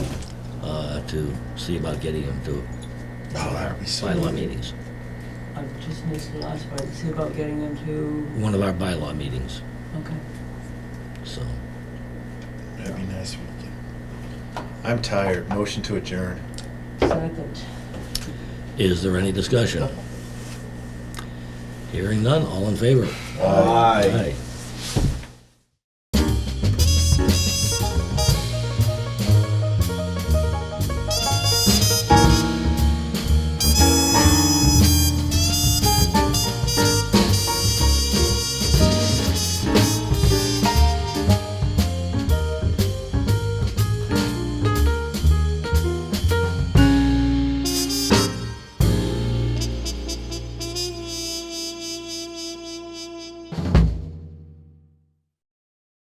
uh, to see about getting him to Oh, that would be so. bylaw meetings. I just missed the last part, see about getting them to, One of our bylaw meetings, okay. so. That'd be nice if we could. I'm tired. Motion to adjourn. Second. Is there any discussion? Hearing none, all in favor? Aye. Aye.